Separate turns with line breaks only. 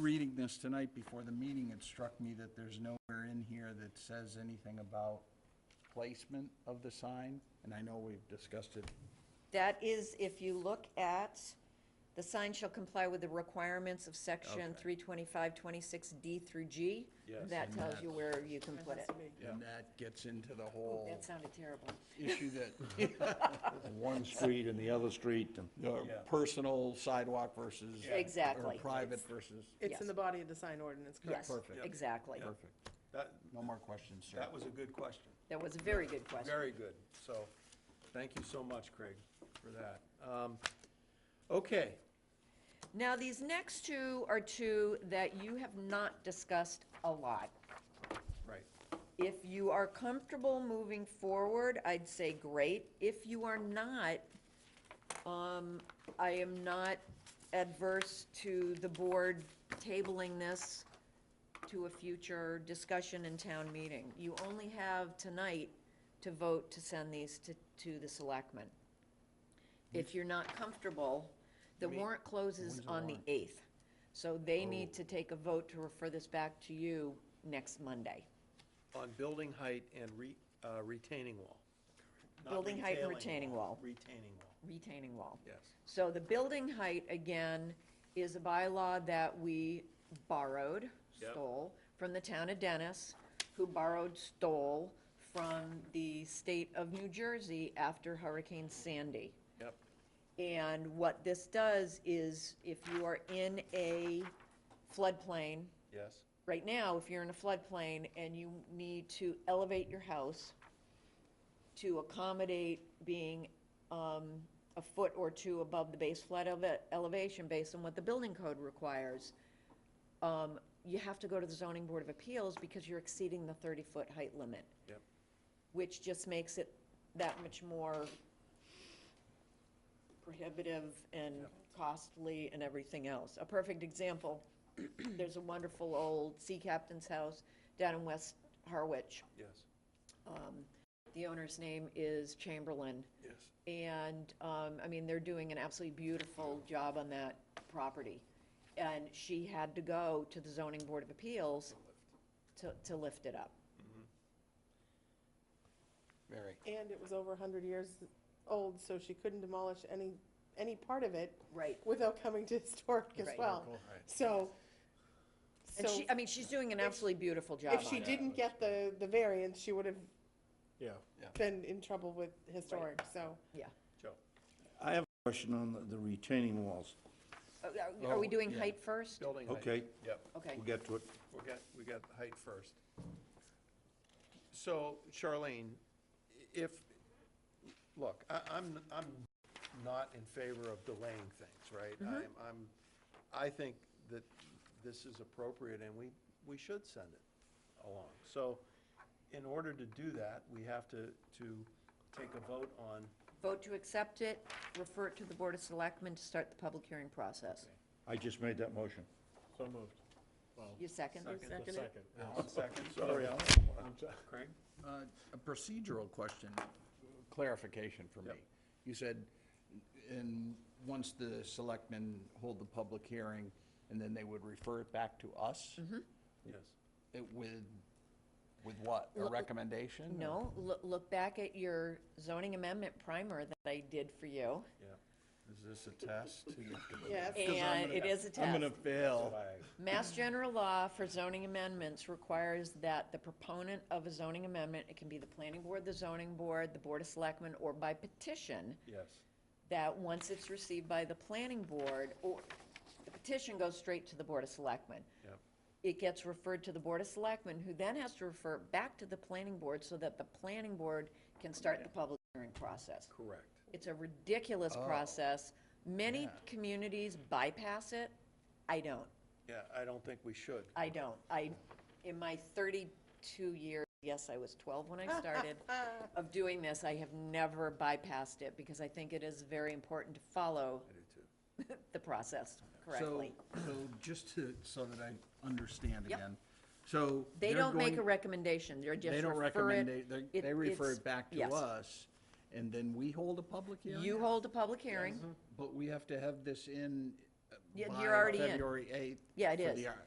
reading this tonight before the meeting, it struck me that there's nowhere in here that says anything about placement of the sign, and I know we've discussed it.
That is, if you look at, the sign shall comply with the requirements of section
Okay.
three twenty-five, twenty-six D through G.
Yes.
That
And
tells
that's-
you where you can put it.
And that gets into the
Oh,
whole
That sounded terrible.
issue that,
one street and the other street, and
uh, personal sidewalk versus.
Exactly.
Or private versus,
It's
Yes.
in the body of the sign ordinance, correct?
Yes,
perfect.
exactly.
perfect.
That,
No more questions, sir.
that was a good question.
That was a very good question.
Very good. So, thank you so much, Craig, for that. Um, Okay,
Now, these next two are two that you have not discussed a lot.
right.
If you are comfortable moving forward, I'd say great. If you are not, um, I am not adverse to the board tabling this to a future discussion in town meeting. You only have tonight to vote to send these to, to the selectmen. If you're not comfortable, the warrant Oh. closes on the eighth. So they need to take a vote to refer this back to you next Monday.
On building height and re- uh, retaining wall. Not
Building height and
retailing
retaining wall.
Retaining wall,
retaining wall.
yes.
So the building height, again, is a bylaw that we borrowed,
Yep.
stole, from the town of Dennis, who borrowed, stole from the state of New Jersey after Hurricane Sandy.
Yep,
And what this does is, if you are in a floodplain,
yes,
right now, if you're in a floodplain and you need to elevate your house to accommodate being um, a foot or two above the base flood eleva- elevation based on what the building code requires, um, you have to go to the zoning board of appeals because you're exceeding the 30-foot height limit,
yep.
which just makes it that much more prohibitive and costly and everything else. A perfect example, there's a wonderful old sea captain's house down in West Harwich.
Yes,
The owner's name is Chamberlain.
yes.
And, um, I mean, they're doing an absolutely beautiful job on that property. And she had to go to the zoning board of appeals to, to lift it up.
Very.
And it was over hundred years old, so she couldn't demolish any, any part of it.
Right.
Without coming to historic as
Right.
well. So,
And
so
she, I mean, she's doing an absolutely beautiful job
if
on
she
it.
didn't get the, the variance, she would have
Yeah,
been in trouble with historic, so.
Yeah.
Joe.
I have a question on the- the retaining walls.
Oh, Are- Are we doing height first?
Building height.
Okay.
Yep.
Okay.
We'll get to Oh, it.
We got, we got the height first. So Charlene, if, look, I, I'm, I'm not in favor of delaying things, right? I'm, I'm, I think that this is appropriate and we, we should send it along. So in order to do that, we have to, to take a vote on,
Vote to accept it, refer it to the Board of Selectmen to start the public hearing process.
I just made that motion.
So moved.
You second?
The second.
second,
Sorry, Alan.
Craig?
Uh, A procedural question, clarification for me. You said, and once the selectmen hold the public hearing, and then they would refer it back to us?
Mm-hmm.
Yes.
It With, with what? A recommendation? or-
No, look, look back at your zoning amendment primer that I did for you.
Yeah. Is this a test?
Yes.
And it is a
I'm
test.
gonna fail.
Mass general law for zoning amendments requires that the proponent of a zoning amendment, it can be the planning board, the zoning board, the Board of Selectmen, or by petition,
Yes,
that once it's received by the planning board, or, the petition goes straight to the Board of Selectmen.
yep,
it gets referred to the Board of Selectmen, who then has to refer it back to the planning board so that the planning board can start the public hearing process.
correct.
It's a ridiculous process. Many communities bypass it. I don't.
Yeah, I don't think we should.
I don't. I, in my 32 years, yes, I was 12 when I started, of doing this, I have never bypassed it because I think it is very important to follow the process correctly.
So, so just to, so that I understand
Yep.
again, so.
They
they're
don't make a
going-
recommendation. They're just
They don't
refer
recommend,
it.
they,
It-
they refer
it's-
it back to
yes.
us, and then we hold a public hearing? Mm-hmm.
You hold a public hearing.
But we have to have this in uh,
Yeah,
by
you're already in.
February 8th.
Yeah, it
for
is.
the, uh,